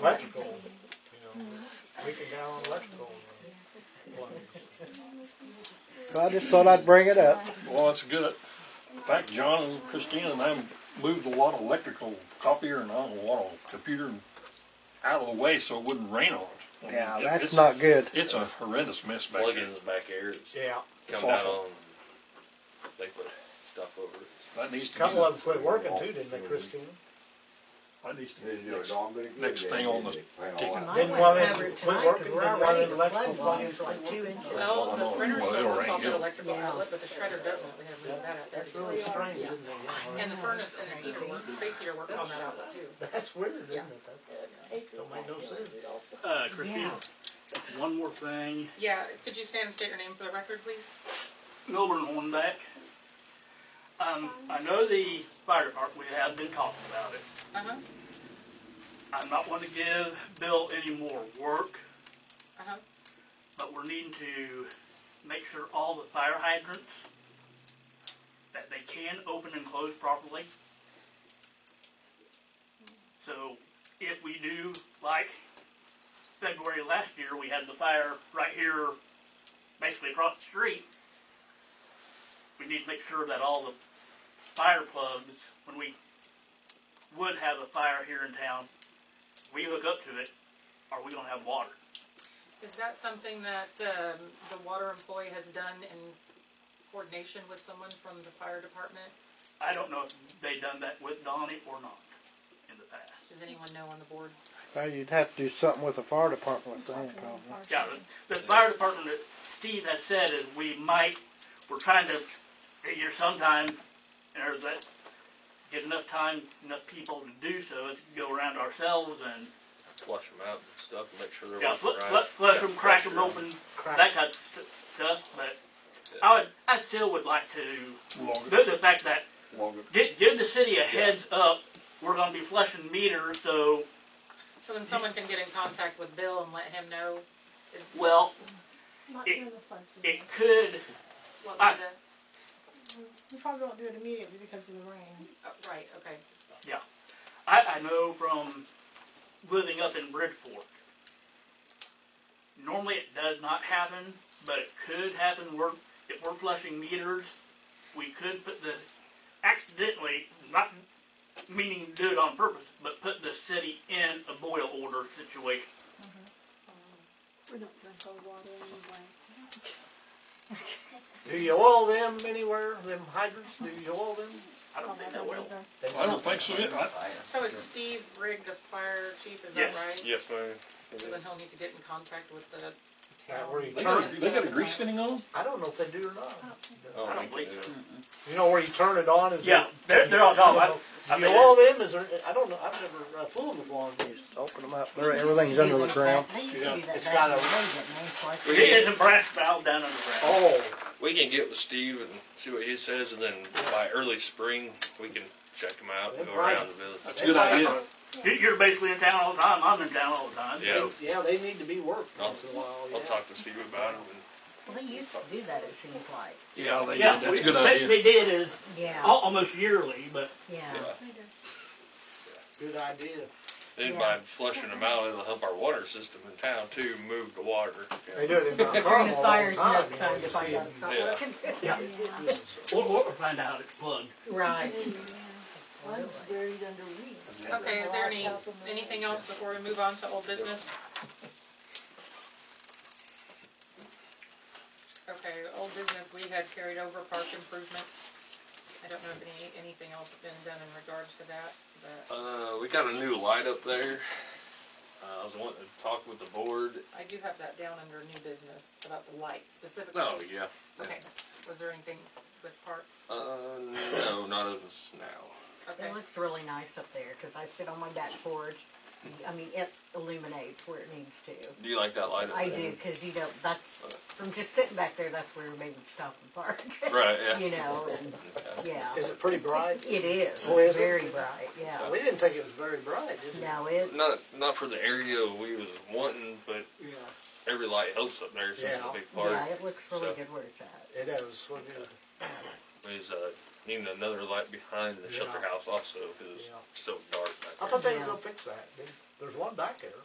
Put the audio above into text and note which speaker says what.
Speaker 1: electrical, you know, leaking down on electrical.
Speaker 2: So I just thought I'd bring it up.
Speaker 3: Well, that's good. In fact, John and Christine and I moved a lot of electrical copier and I don't know, a lot of computer out of the way so it wouldn't rain on it. I mean,
Speaker 2: Yeah,
Speaker 3: it-
Speaker 2: that's
Speaker 3: it's-
Speaker 2: not good.
Speaker 3: It's a horrendous mess back there.
Speaker 4: plugins back here that's
Speaker 1: Yeah,
Speaker 3: It's
Speaker 4: come down
Speaker 3: awful.
Speaker 4: on, they put stuff over it.
Speaker 3: That needs
Speaker 1: a
Speaker 3: to be.
Speaker 1: couple
Speaker 3: the-
Speaker 1: of them quit working too, didn't they, Christine?
Speaker 3: That needs to be next, next thing on the ticket.
Speaker 5: Mine
Speaker 1: Didn't want
Speaker 5: went
Speaker 1: it
Speaker 5: covered
Speaker 1: to
Speaker 5: tonight
Speaker 1: work
Speaker 5: 'cause
Speaker 1: around
Speaker 5: I'm
Speaker 1: while
Speaker 5: ready
Speaker 1: the
Speaker 5: to
Speaker 1: electrical
Speaker 5: flood
Speaker 1: line
Speaker 5: mine
Speaker 1: is
Speaker 5: for like
Speaker 1: like-
Speaker 5: two inches.
Speaker 6: Well, the
Speaker 3: Well,
Speaker 6: printer
Speaker 3: it'll
Speaker 6: still works
Speaker 3: rain,
Speaker 6: off an
Speaker 3: yeah.
Speaker 6: electrical outlet, but the shredder doesn't, we haven't moved that out there.
Speaker 1: It's really strange, isn't it?
Speaker 6: And the furnace, and the heater works, space heater works on that outlet too.
Speaker 1: That's weird, isn't it? though? Don't make no sense.
Speaker 7: Uh, Christine, one more thing.
Speaker 6: Yeah, could you stand and state your name for the record, please?
Speaker 7: Milburn Hornback. Um, I know the fire department, we have been talking about it.
Speaker 6: Uh-huh,
Speaker 7: I'm not wanting to give Bill any more work,
Speaker 6: uh-huh.
Speaker 7: but we're needing to make sure all the fire hydrants, that they can open and close properly. So if we do, like February last year, we had the fire right here, basically across the street. We need to make sure that all the fire plugs, when we would have a fire here in town, we hook up to it, are we gonna have water?
Speaker 6: Is that something that, um, the water employee has done in coordination with someone from the fire department?
Speaker 7: I don't know if they done that with Donnie or not in the past.
Speaker 6: Does anyone know on the board?
Speaker 2: Well, you'd have to do something with the fire department with that problem.
Speaker 7: Yeah, the, the fire department that Steve has said is we might, we're trying to figure sometime, or that, get enough time, enough people to do so, is go around ourselves and,
Speaker 4: Flush them out and stuff and make sure they're
Speaker 7: yeah,
Speaker 4: working
Speaker 7: flush,
Speaker 4: right.
Speaker 7: flush
Speaker 4: Yeah,
Speaker 7: them, crack them
Speaker 4: pressure.
Speaker 7: open,
Speaker 1: Crack.
Speaker 7: that type of stu- stuff, but I would, I still would like to,
Speaker 3: Log it,
Speaker 7: the, the fact that
Speaker 3: log it.
Speaker 7: Give, give the city a heads up, we're gonna be flushing meters, so.
Speaker 6: So then someone can get in contact with Bill and let him know
Speaker 7: Well.
Speaker 5: Not
Speaker 7: It-
Speaker 5: during the flood season.
Speaker 7: It could,
Speaker 6: what
Speaker 7: I-
Speaker 6: we did?
Speaker 5: We probably won't do it immediately because of the rain.
Speaker 6: Oh, Right, okay.
Speaker 7: I, I know from living up in Bridgeport. Normally it does not happen, but it could happen, we're, if we're flushing meters, we could put the, accidentally, not meaning do it on purpose, but put the city in a boil order situation.
Speaker 8: We don't drink cold water anyway.
Speaker 1: Do you oil them anywhere, them hydrants, do you oil them?
Speaker 7: I don't think that will.
Speaker 1: They-
Speaker 3: I don't think so, yeah, I,
Speaker 6: So is Steve Rigg the fire chief, is that
Speaker 7: Yes.
Speaker 6: right?
Speaker 4: Yes, ma'am.
Speaker 6: So then he'll need to get in contact with the
Speaker 1: Uh, where you
Speaker 3: they
Speaker 1: turn,
Speaker 3: got, they got a grease fitting on?
Speaker 1: I don't know if they do or not.
Speaker 4: Oh,
Speaker 7: I
Speaker 4: we
Speaker 7: don't
Speaker 4: can
Speaker 7: believe
Speaker 4: do
Speaker 7: so.
Speaker 4: it.
Speaker 1: You know where you turn it on? Is it-
Speaker 7: Yeah, they're, they're all
Speaker 1: You
Speaker 7: gone. I-
Speaker 1: know,
Speaker 7: I
Speaker 1: do you
Speaker 7: mean-
Speaker 1: oil them? Is there, I don't know, I've never, uh, fooled with one of these.
Speaker 2: Open them up. They're- Everything's under the ground.
Speaker 1: It's got a-
Speaker 7: He is a brass valve down in the ground.
Speaker 1: Oh,
Speaker 4: We can get with Steve and see what he says, and then by early spring, we can check him out and go around the village.
Speaker 3: That's a good idea.
Speaker 7: You- You're basically in town all the time, I'm in town all the time.
Speaker 4: Yeah,
Speaker 1: they- yeah, they need to be worked
Speaker 4: I'll-
Speaker 1: once in a while,
Speaker 4: I'll
Speaker 1: yeah.
Speaker 4: talk to Steve about it.
Speaker 9: Well, they used to do that, it seems like.
Speaker 3: Yeah, they
Speaker 7: Yeah,
Speaker 3: did, that's a good
Speaker 7: they-
Speaker 3: idea.
Speaker 7: They did is
Speaker 9: Yeah,
Speaker 4: Oh.
Speaker 7: al- almost yearly, but
Speaker 9: yeah.
Speaker 1: Good idea.
Speaker 4: And then by flushing them out, it'll help our water system in town too, move the water.
Speaker 1: They do it in Mount
Speaker 9: During the
Speaker 1: Carmel all the
Speaker 9: fires,
Speaker 1: time.
Speaker 9: enough
Speaker 1: you
Speaker 9: time
Speaker 1: know,
Speaker 9: to
Speaker 1: you
Speaker 9: find
Speaker 1: see
Speaker 9: out
Speaker 1: it.
Speaker 9: it's not
Speaker 4: Yeah.
Speaker 9: working.
Speaker 7: we'll, we'll find out it's plugged.
Speaker 9: Right.
Speaker 5: One's buried under weeds.
Speaker 6: Okay, is there any, anything else before we move on to old business? Okay, old business, we had carried over park improvements. I don't know if any, anything else has been done in regards to that, but
Speaker 4: Uh, we got a new light up there. Uh, I was wanting to talk with the board.
Speaker 6: I do have that down under new business about the light specifically.
Speaker 4: Oh, yeah.
Speaker 6: Okay, was there anything with park?
Speaker 4: Uh, no, not of us now.
Speaker 6: Okay,
Speaker 9: It looks really nice up there, cause I sit on my back porch, I mean, it illuminates where it needs to.
Speaker 4: Do you like that light up
Speaker 9: I
Speaker 4: there?
Speaker 9: do, cause you know, that's, from just sitting back there, that's where we would stop and park,
Speaker 4: Right, yeah.
Speaker 9: you know, and, yeah.
Speaker 1: Is it pretty bright?
Speaker 9: It is,
Speaker 1: Oh, is it?
Speaker 9: very bright, yeah.
Speaker 1: We didn't think it was very bright, did we?
Speaker 9: No, it,
Speaker 4: Not not for the area we was wanting, but
Speaker 1: Yeah.
Speaker 4: every light helps up there since it's
Speaker 1: Yeah.
Speaker 4: a big park.
Speaker 9: yeah, it looks really
Speaker 4: so-
Speaker 9: good where it's at.
Speaker 1: It is, what it is.
Speaker 4: There's uh, needing another light behind the shelter
Speaker 1: Yeah.
Speaker 4: house also because it's
Speaker 1: Yeah.
Speaker 4: so dark. Back
Speaker 1: I
Speaker 4: there.
Speaker 1: thought they were gonna fix that, didn't There's one back there.